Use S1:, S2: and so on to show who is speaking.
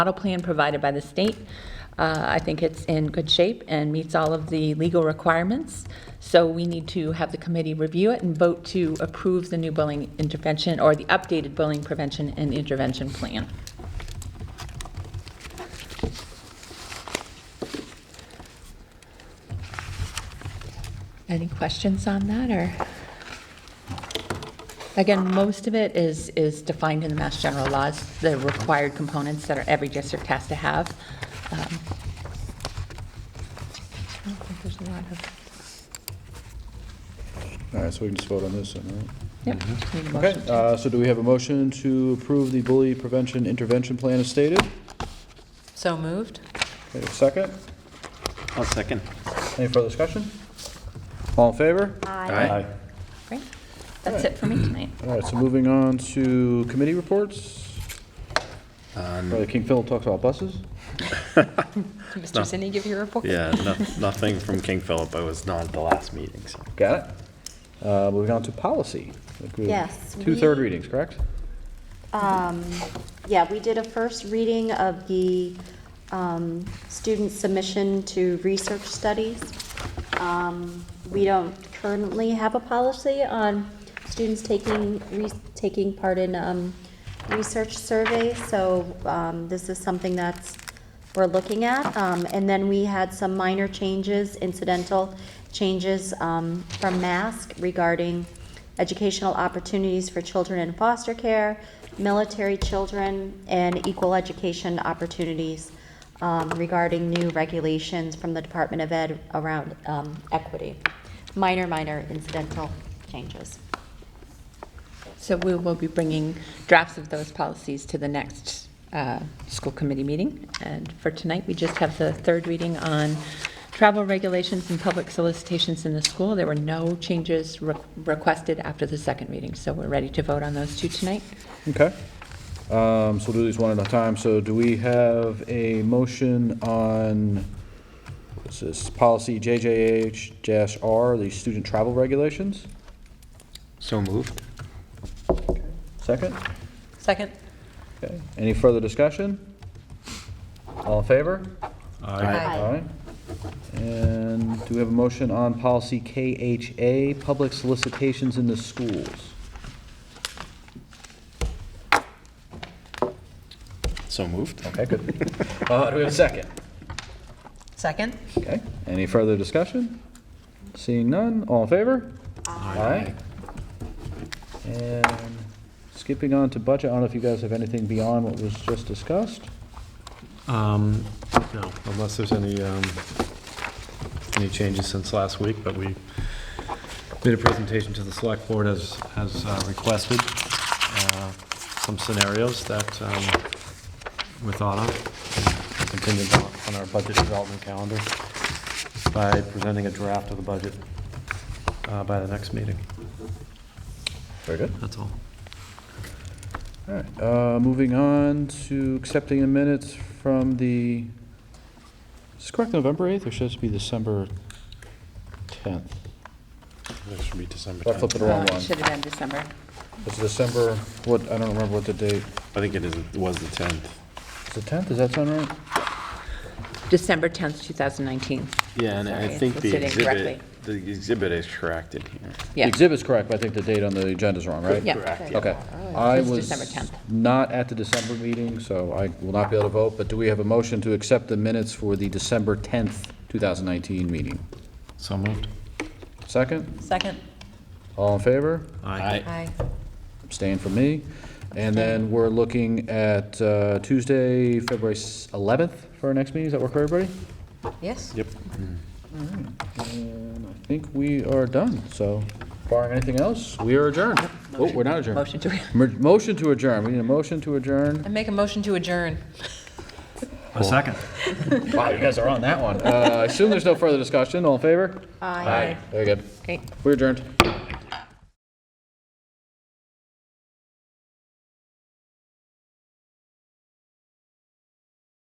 S1: model plan provided by the state. Uh, I think it's in good shape and meets all of the legal requirements. So we need to have the committee review it and vote to approve the new bullying intervention or the updated bullying prevention and intervention plan. Any questions on that, or? Again, most of it is, is defined in the Mass General laws, the required components that are, every district has to have. Um, I don't think there's a lot of,
S2: All right, so we can just vote on this, then, all right?
S1: yep. need a
S2: Okay,
S1: motion.
S2: uh, so do we have a motion to approve the bully prevention intervention plan as stated?
S3: So moved?
S2: Okay, Second,
S4: I'll second.
S2: any further discussion? All in favor?
S4: Aye.
S1: Great. That's it for me tonight.
S2: All right, so moving on to committee reports. Brother King Philip talks about buses.
S3: Mr. Zinni, give your report?
S4: Yeah, no- nothing from King Philip. I was not at the last meeting, so.
S2: Got it. Uh, Moving on to policy. Like we-
S5: Yes,
S2: Two third
S5: we-
S2: readings, correct?
S5: Um, Yeah, we did a first reading of the um, student submission to research studies. Um, We don't currently have a policy on students taking, re- taking part in um, research surveys, so um, this is something that's, we're looking at. Um, And then we had some minor changes, incidental changes um, from mask regarding educational opportunities for children in foster care, military children, and equal education opportunities um, regarding new regulations from the Department of Ed around um, equity. Minor, minor incidental changes.
S1: So we will be bringing drafts of those policies to the next uh, school committee meeting. And for tonight, we just have the third reading on travel regulations and public solicitations in the school. There were no changes re- requested after the second reading, so we're ready to vote on those two tonight.
S2: Okay. Um, So we'll do these one at a time. So do we have a motion on, this is policy JJH-R, the student travel regulations?
S4: So moved?
S2: Second?
S3: Second?
S2: Okay. Any further discussion? All in favor?
S5: Aye.
S2: And do we have a motion on policy KHA, public solicitations in the schools?
S4: So moved?
S2: Okay, good. Uh, Do we have a second?
S3: Second?
S2: Okay, any further discussion? Seeing none, all in favor? Aye. And skipping on to budget, I don't know if you guys have anything beyond what was just discussed?
S6: Um, No, unless there's any, um, any changes since last week, but we made a presentation to the select board as, as uh, requested, uh, some scenarios that um, we thought of, and continued on- on our budget development calendar by presenting a draft of the budget uh, by the next meeting.
S2: Very good.
S6: That's all.
S2: All right, uh, moving on to accepting the minutes from the, is this correct, November 8th, or should this be December 10th?
S4: That should be December
S2: I flipped
S4: 10th.
S2: it
S3: Oh,
S2: wrong
S1: Uh, It
S2: one.
S1: should have been December.
S2: It's December, what, I don't remember what the date,
S4: I think it is, it was the 10th.
S2: is it 10th, does that sound right?
S1: December 10th, 2019.
S4: Yeah, and I
S1: Sorry,
S4: think
S1: it's
S4: the
S1: sitting
S4: exhibit,
S1: correctly.
S4: the exhibit is corrected here.
S2: The
S1: Yeah.
S2: exhibit's correct, but I think the date on the agenda's wrong, right?
S1: Yeah.
S4: Correct, yeah.
S2: Okay. I
S1: It's
S2: was
S1: December 10th.
S2: not at the December meeting, so I will not be able to vote, but do we have a motion to accept the minutes for the December 10th, 2019 meeting?
S6: So moved.
S2: Second?
S3: Second?
S2: All in favor?
S4: Aye.
S3: Aye.
S2: Abstain from me. And then we're looking at uh, Tuesday, February s- 11th for our next meeting. Does that work for everybody?
S3: Yes?
S4: Yep.
S2: And I think we are done, so barring anything else, we are adjourned. Oh, we're not adjourned.
S1: Motion to,
S2: Mer- Motion to adjourn. We need a motion to adjourn.
S3: I make a motion to adjourn.
S6: A second.
S2: Wow, you guys are on that one. Uh, I assume there's no further discussion. All in favor? Aye. Very good.
S1: great.
S2: We're adjourned.